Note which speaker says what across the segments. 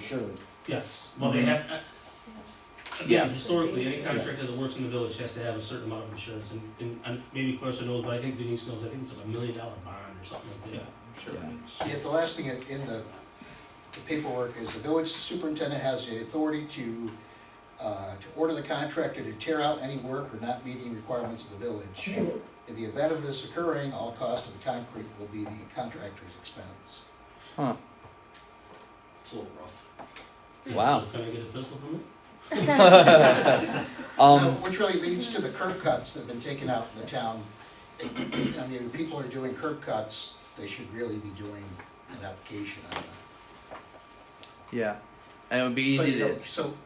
Speaker 1: Sure.
Speaker 2: Yes, well,
Speaker 3: Mm-hmm.
Speaker 2: they have, uh,
Speaker 1: Yeah.
Speaker 2: again, historically, any contractor that works in the village has to have a certain amount of insurance, and, and, and maybe Clarissa knows, but I think Denise knows, I think it's like a million dollar bond or something like that.
Speaker 3: Sure.
Speaker 4: Yet the last thing in in the the paperwork is the village superintendent has the authority to, uh, to order the contractor to tear out any work or not meeting requirements of the village. In the event of this occurring, all cost of the concrete will be the contractor's expense.
Speaker 3: Huh.
Speaker 4: It's a little rough.
Speaker 2: Yeah,
Speaker 3: Wow.
Speaker 2: so Can I get a pistol from it?
Speaker 4: Now,
Speaker 3: Um,
Speaker 4: Which really leads to the curb cuts that have been taken out in the town. I mean, if people are doing curb cuts, they should really be doing an application on that.
Speaker 3: yeah. And it would be
Speaker 4: So,
Speaker 3: easy
Speaker 4: you
Speaker 3: to
Speaker 4: know, so.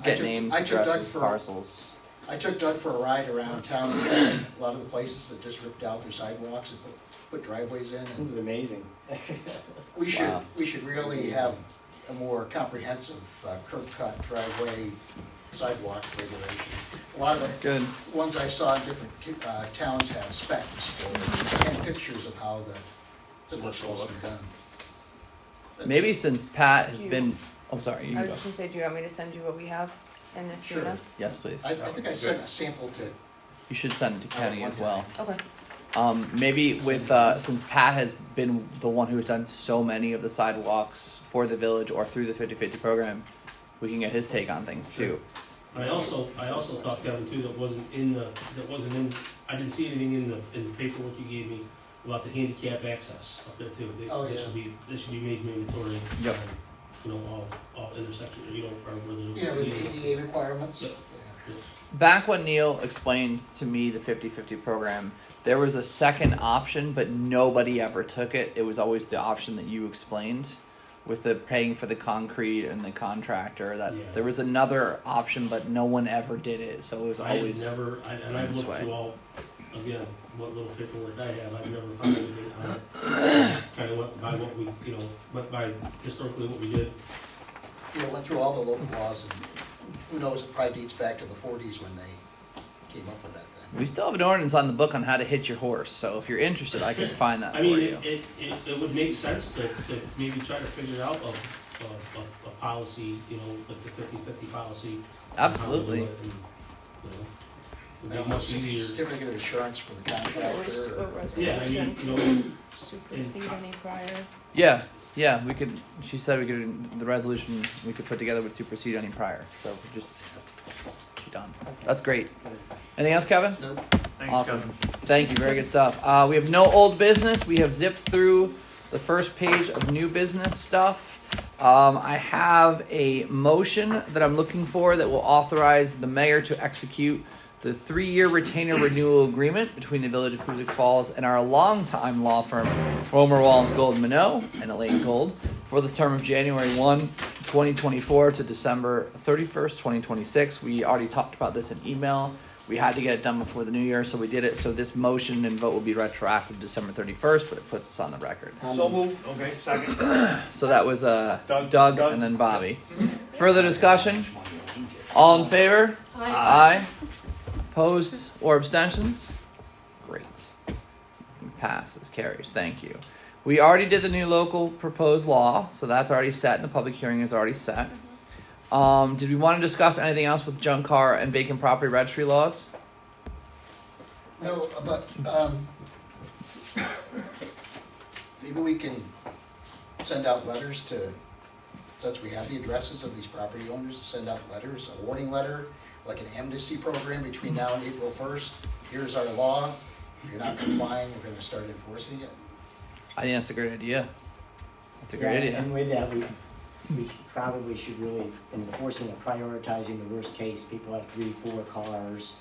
Speaker 4: I
Speaker 3: get
Speaker 4: took-
Speaker 3: names,
Speaker 4: I took Doug
Speaker 3: addresses,
Speaker 4: for,
Speaker 3: parcels.
Speaker 4: I took Doug for a ride around town, and showed him a lot of the places that just ripped out their sidewalks and put, put driveways in,
Speaker 1: This
Speaker 4: and
Speaker 1: is amazing.
Speaker 4: we should,
Speaker 3: Wow.
Speaker 4: we should really have a more comprehensive uh, curb cut driveway sidewalk regulation. A lot of the
Speaker 3: Good.
Speaker 4: ones I saw in different uh, towns have specs or, and pictures of how the, the work's supposed to be done. That's
Speaker 3: Maybe
Speaker 4: it.
Speaker 3: since Pat has
Speaker 5: You-
Speaker 3: been. I'm sorry. You
Speaker 5: I
Speaker 3: can
Speaker 5: was
Speaker 3: go.
Speaker 5: just gonna say, do you want me to send you what we have in this
Speaker 4: Sure.
Speaker 5: data?
Speaker 3: Yes, please.
Speaker 4: I, I think I sent a sample to,
Speaker 3: You should send it to Kenny as well.
Speaker 5: Okay.
Speaker 3: Um, maybe with uh, since Pat has been the one who has done so many of the sidewalks for the village or through the 50-50 program, we can get his take on things too.
Speaker 2: And I also, I also thought Kevin too, that wasn't in the, that wasn't in, I didn't see anything in the, in the paperwork you gave me about the handicap access up there too. They-
Speaker 4: Oh,
Speaker 2: That
Speaker 4: yeah.
Speaker 2: should be, that should be made mandatory.
Speaker 3: Yep.
Speaker 2: um, You know, all, all intersections, you know, or whether.
Speaker 4: yeah, the ADA requirements.
Speaker 2: Yeah.
Speaker 4: Yeah.
Speaker 3: Back when Neil explained to me the 50-50 program, there was a second option, but nobody ever took it. It was always the option that you explained with the paying for the concrete and the contractor. That
Speaker 2: Yeah.
Speaker 3: there was another option, but no one ever did it. So it was
Speaker 2: I
Speaker 3: always
Speaker 2: have never, I- and I've
Speaker 3: this
Speaker 2: looked
Speaker 3: way.
Speaker 2: through all, again, what little paperwork I have, I've never found anything on it. I just Kinda went by what we, you know, went by historically what we did.
Speaker 4: you know, went through all the local laws and who knows, it probably dates back to the forties when they came up with that thing.
Speaker 3: We still have an ordinance on the book on how to hit your horse, so if you're interested, I can find that
Speaker 2: I mean,
Speaker 3: for you.
Speaker 2: it, it, it it would make sense to, to maybe try to figure out a, a, a, a policy, you know, like the fifty-fifty policy. on how to do
Speaker 3: Absolutely.
Speaker 2: it and, you know, It'd
Speaker 4: Now,
Speaker 2: be much easier.
Speaker 4: Certificate of insurance for the
Speaker 5: What res-
Speaker 4: contractor
Speaker 5: what
Speaker 4: or
Speaker 2: Yeah, I mean,
Speaker 5: resolution
Speaker 2: you know,
Speaker 5: Supersede any prior,
Speaker 3: Yeah, yeah, we could. She said we could. The resolution we could put together would supersede any prior, so we just be done. That's great. Anything else, Kevin?
Speaker 4: Nope.
Speaker 3: awesome. Thank you. Very good stuff. Uh, we have no old business. We have zipped through the first page of new business stuff. Um, I have a motion that I'm looking for that will authorize the mayor to execute the three-year retainer renewal agreement between the Village of Huzik Falls and our longtime law firm, Romer Wallens Gold Minot and Elaine Gold, for the term of January 1, 2024 to December 31st, 2026. We already talked about this in email. We had to get it done before the new year, so we did it. So this motion and vote will be retroactive December 31st, but it puts us on the record.
Speaker 6: So move. Okay, second.
Speaker 3: So that was uh, Doug,
Speaker 6: Doug, Doug.
Speaker 3: and then Bobby. Further discussion? All in favor? Aye. Opposed or abstentions? Great. Passes, carries. Thank you. We already did the new local proposed law, so that's already set, and the public hearing is already set. Um, did we want to discuss anything else with junk car and vacant property registry laws?
Speaker 4: No, but, um, maybe we can send out letters to, since we have the addresses of these property owners, send out letters, a warning letter, like an amnesty program between now and April first. Here's our law. If you're not complying, we're gonna start enforcing it.
Speaker 3: I think that's a great idea. That's a
Speaker 1: Yeah,
Speaker 3: great idea.
Speaker 1: And with that, we, we probably should really enforcing and prioritizing the worst case. People have three, four cars.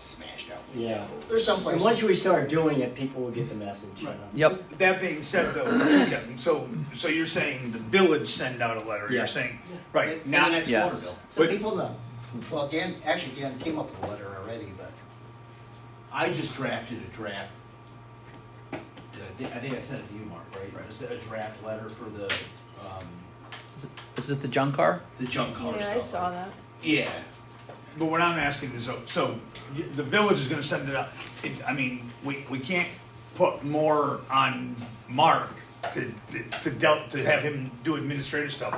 Speaker 4: Smashed out.
Speaker 1: Yeah.
Speaker 4: There's some
Speaker 1: And
Speaker 4: places.
Speaker 1: once we start doing it, people will get the message. you know.
Speaker 3: Yep.
Speaker 6: That being said, though, yeah, so, so you're saying the village send out a letter,
Speaker 1: Yeah.
Speaker 6: you're saying,
Speaker 4: In-
Speaker 6: right,
Speaker 4: in the
Speaker 6: not,
Speaker 4: next
Speaker 3: Yes.
Speaker 4: water bill.
Speaker 1: So
Speaker 6: But-
Speaker 1: people know.
Speaker 4: Well, Dan, actually, Dan came up with a letter already, but
Speaker 7: I just drafted a draft. I think, I think I sent it to you, Mark, right? Just a draft letter for the, um,
Speaker 3: Is this the junk car?
Speaker 7: the junk car
Speaker 5: yeah,
Speaker 7: stuff.
Speaker 5: I saw that.
Speaker 7: Yeah,
Speaker 6: but what I'm asking is, so- so, y- the village is gonna send it out. It, I mean, we, we can't put more on Mark to, to, to del- to have him do administrative stuff.